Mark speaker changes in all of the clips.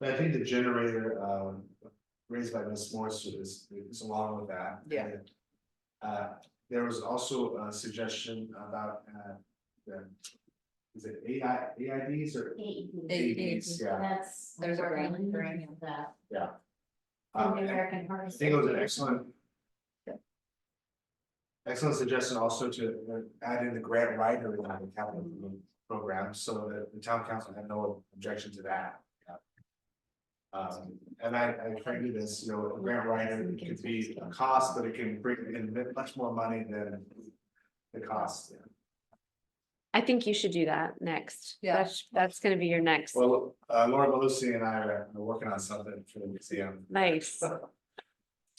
Speaker 1: But I think the generator um raised by Ms. Morse is is along with that.
Speaker 2: Yeah.
Speaker 1: And, Uh, there was also a suggestion about uh the. Is it AI AIDs or? AEDs, yeah.
Speaker 3: That's.
Speaker 2: There's a
Speaker 3: we're
Speaker 2: brand- brand.
Speaker 3: eliminating That.
Speaker 1: um,
Speaker 3: And the American
Speaker 1: I
Speaker 3: Heart.
Speaker 1: think it was an
Speaker 3: Association.
Speaker 1: excellent. Excellent suggestion also to uh, add in the grant writer in the capital improvement program, so that the town council had no objection to that. yeah. Um, and I, I frankly, this, you know, a grant writer it could be a cost, but it can bring in much more money than the cost. yeah.
Speaker 4: I think you should do that next.
Speaker 2: Yeah.
Speaker 4: That's, that's gonna be your next.
Speaker 1: Well, uh, Laura Belusi and I are are working on something for the museum,
Speaker 4: Nice.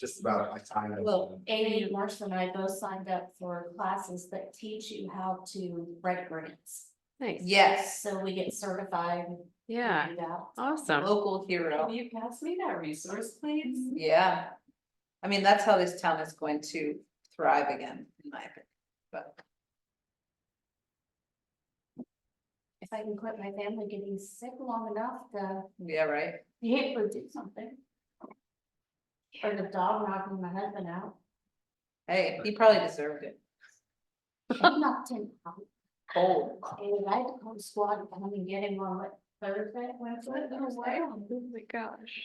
Speaker 1: just about like time. and-
Speaker 3: Well, Amy Marshall and I both signed up for classes that teach you how to write grants.
Speaker 4: Nice.
Speaker 2: Yes,
Speaker 3: So we get certified. and
Speaker 4: Yeah.
Speaker 3: do that.
Speaker 4: Awesome.
Speaker 2: local hero.
Speaker 5: you pass me that resource, please?
Speaker 3: Mhm.
Speaker 2: Yeah. I mean, that's how this town is going to thrive again, in my opinion, but.
Speaker 3: If I can quit my family getting sick long enough to
Speaker 2: Yeah, right?
Speaker 3: be able to do something. Or the dog knocking my husband out.
Speaker 2: Hey, he probably deserved it.
Speaker 3: He knocked him out.
Speaker 2: Cold.
Speaker 3: And I had to call the squad and come and get him on what, Thursday, Wednesday, Thursday.
Speaker 4: my gosh.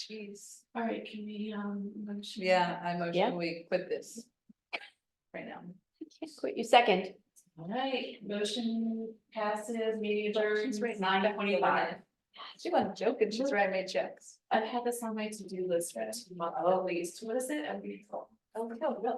Speaker 2: Jeez.
Speaker 5: All right, can we, um. motion?
Speaker 2: Yeah, I
Speaker 4: Yeah.
Speaker 2: motion we quit this. Right now.
Speaker 4: Quit you second.
Speaker 5: All right, motion passes, meeting adjourned,
Speaker 2: She's right.
Speaker 5: nine twenty-five.
Speaker 2: She wasn't joking, she's writing me checks.
Speaker 5: I've had this on my to-do list for two months at least, what is it? I'm grateful.
Speaker 2: Oh, no, no.